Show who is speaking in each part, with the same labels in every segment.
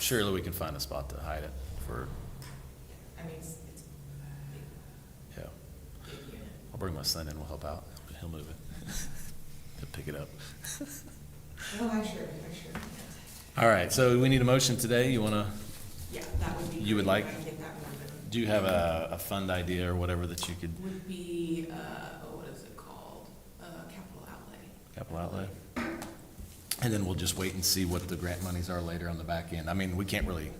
Speaker 1: Surely we can find a spot to hide it for,
Speaker 2: I mean, it's, it's a
Speaker 1: yeah.
Speaker 2: big, big unit.
Speaker 1: I'll bring my son in, we'll help out. He'll move it. He'll pick it up.
Speaker 2: Well, Oh, I sure, I sure.
Speaker 1: All right, so we need a motion today. You want to,
Speaker 2: Yeah, that would be.
Speaker 1: You would
Speaker 2: great if
Speaker 1: like-
Speaker 2: I could get that moving.
Speaker 1: do you have a, a fund idea or whatever that you could,
Speaker 2: Would be, uh, oh, what is it called? Uh, capital outlay.
Speaker 1: capital outlay? And then we'll just wait and see what the grant monies are later on the back end. I mean, we can't really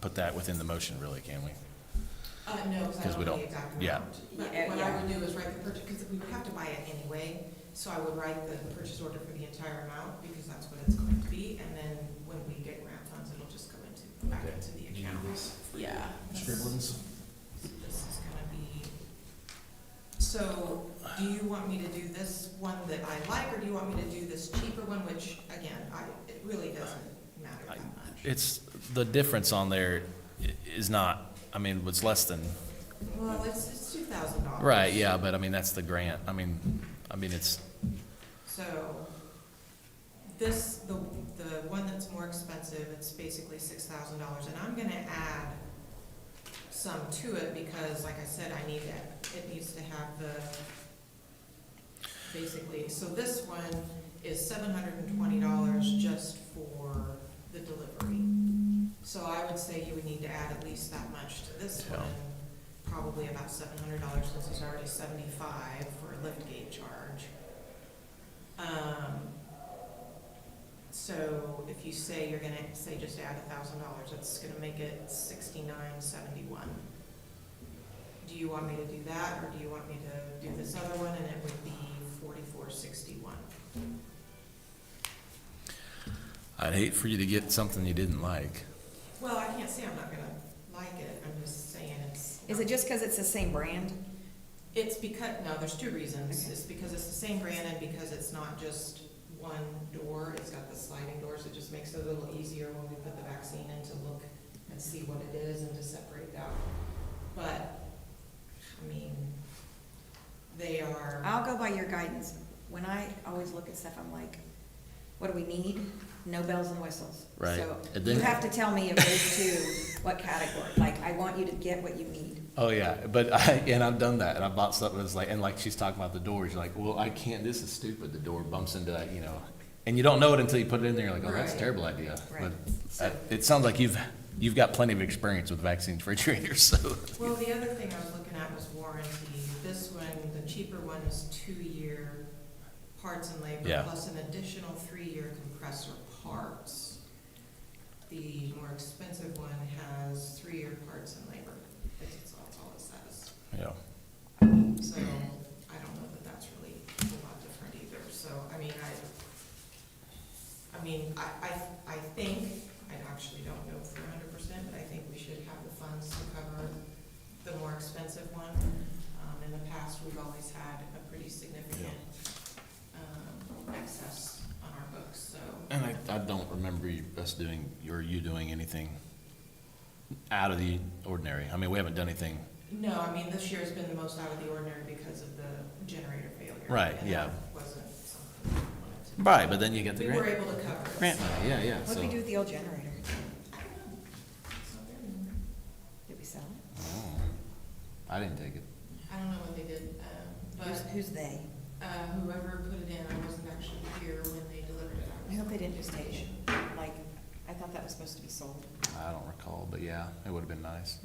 Speaker 1: put that within the motion really, can we?
Speaker 2: Uh, no,
Speaker 1: 'Cause
Speaker 2: because I
Speaker 1: we
Speaker 2: don't know
Speaker 1: don't-
Speaker 2: the exact
Speaker 1: yeah.
Speaker 2: amount. But
Speaker 3: Yeah,
Speaker 2: what I
Speaker 3: yeah.
Speaker 2: would do is write the purchase, because we would have to buy it anyway, so I would write the purchase order for the entire amount, because that's what it's going to be, and then when we get grant funds, it'll just come into, back
Speaker 1: Okay.
Speaker 2: into the
Speaker 1: Do you
Speaker 2: account.
Speaker 1: need this?
Speaker 2: Yeah. that's- so This is gonna be, so do you want me to do this one that I like, or do you want me to do this cheaper one, which, again, I, it really doesn't matter that much?
Speaker 1: It's, the difference on there i- is not, I mean, it's less than,
Speaker 2: Well, it's, it's two thousand dollars.
Speaker 1: right, yeah, but I mean, that's the grant. I mean, I mean, it's,
Speaker 2: So this, the, the one that's more expensive, it's basically six thousand dollars, and I'm gonna add some to it because, like I said, I need it, it needs to have the, basically, so this one is seven hundred and twenty dollars just for the delivery. So I would say you would need to add at least that much to this
Speaker 1: Yeah.
Speaker 2: one, probably about seven hundred dollars since it's already seventy-five for a lift gate charge. Um, so if you say you're gonna, say just add a thousand dollars, that's gonna make it sixty-nine seventy-one. Do you want me to do that, or do you want me to do this other one, and it would be forty-four sixty-one?
Speaker 1: I'd hate for you to get something you didn't like.
Speaker 2: Well, I can't say I'm not gonna like it, I'm just saying it's.
Speaker 3: Is it just because it's the same brand?
Speaker 2: It's because, no, there's two reasons.
Speaker 3: Okay.
Speaker 2: It's because it's the same brand and because it's not just one door, it's got the sliding doors. It just makes it a little easier when we put the vaccine in to look and see what it is and to separate out. But, I mean, they are.
Speaker 3: I'll go by your guidance. When I always look at stuff, I'm like, what do we need? No bells and whistles.
Speaker 1: Right.
Speaker 3: So
Speaker 1: And
Speaker 3: you
Speaker 1: then-
Speaker 3: have to tell me of those two, what category. Like, I want you to get what you need.
Speaker 1: Oh yeah, but I and I've done that, and I bought something that's like, and like she's talking about the doors, you're like, well, I can't. This is stupid. The door bumps into that, you know, and you don't know it until you put it in there. You're like, oh, that's a
Speaker 2: Right.
Speaker 1: terrible idea.
Speaker 3: Right.
Speaker 1: But uh, it sounds like you've you've got plenty of experience with vaccine refrigerators, so
Speaker 2: Well, the other thing I was looking at was warranty. This one, the cheaper one is two-year parts and labor,
Speaker 1: Yeah.
Speaker 2: plus an additional three-year compressor parts. The more expensive one has three-year parts and labor. That's that's all it says.
Speaker 1: yeah.
Speaker 2: So I don't know that that's really a lot different either. So, I mean, I, I mean, I, I, I think, I actually don't know for hundred percent, but I think we should have the funds to cover the more expensive one. Um, in the past, we've always had a pretty significant, um, excess on our books, so.
Speaker 1: And I, I don't remember you- us doing or you doing anything out of the ordinary. I mean, we haven't done anything.
Speaker 2: No, I mean, this year's been the most out of the ordinary because of the generator failure.
Speaker 1: Right,
Speaker 2: and
Speaker 1: yeah.
Speaker 2: that Wasn't something we wanted to.
Speaker 1: Right, but then you get the
Speaker 2: We were
Speaker 1: grant.
Speaker 2: able to cover it.
Speaker 1: Grant money, yeah, yeah.
Speaker 3: What did we
Speaker 1: so-
Speaker 3: do with the old generator?
Speaker 2: I don't know. It's not there anymore.
Speaker 3: Did we sell it?
Speaker 1: Oh, I didn't take it.
Speaker 2: I don't know what they did, um,
Speaker 3: Who's,
Speaker 2: but
Speaker 3: who's they?
Speaker 2: uh, whoever put it in, I wasn't actually here when they delivered it.
Speaker 3: I
Speaker 2: was
Speaker 3: hope they
Speaker 2: at
Speaker 3: didn't just
Speaker 2: the
Speaker 3: take
Speaker 2: station.
Speaker 3: it. Like, I thought that was supposed to be sold.
Speaker 1: I don't recall, but yeah, it would have been nice.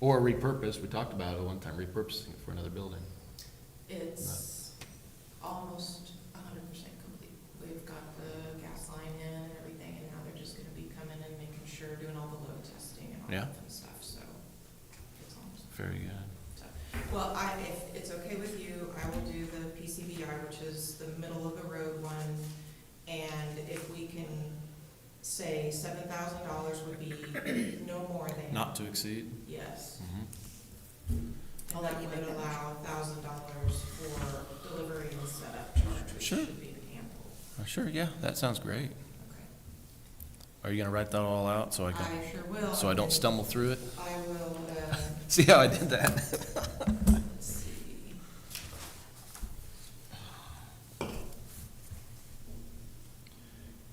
Speaker 1: Or repurpose, we talked about it one time, repurposing it for another building.
Speaker 2: It's almost a hundred percent complete. We've got the gas line in and everything, and now they're just gonna be coming and making sure, doing all the load testing and all
Speaker 1: Yeah.
Speaker 2: that fun stuff, so. It's almost,
Speaker 1: Very good.
Speaker 2: well, I, if it's okay with you, I will do the PCBI, which is the middle of the road one. And if we can say seven thousand dollars would be no more than.
Speaker 1: Not to exceed?
Speaker 2: Yes.
Speaker 1: Mm-hmm.
Speaker 2: And
Speaker 3: I'll let
Speaker 2: that
Speaker 3: you
Speaker 2: would
Speaker 3: make that
Speaker 2: allow thousand dollars for delivery and setup charge, which
Speaker 1: Sure.
Speaker 2: should be ample.
Speaker 1: Uh, Sure, yeah, that sounds great.
Speaker 2: Okay.
Speaker 1: Are you gonna write that all out so I can,
Speaker 2: I sure will.
Speaker 1: so I don't
Speaker 2: and
Speaker 1: stumble through it?
Speaker 2: I will, uh,
Speaker 1: See how I did that?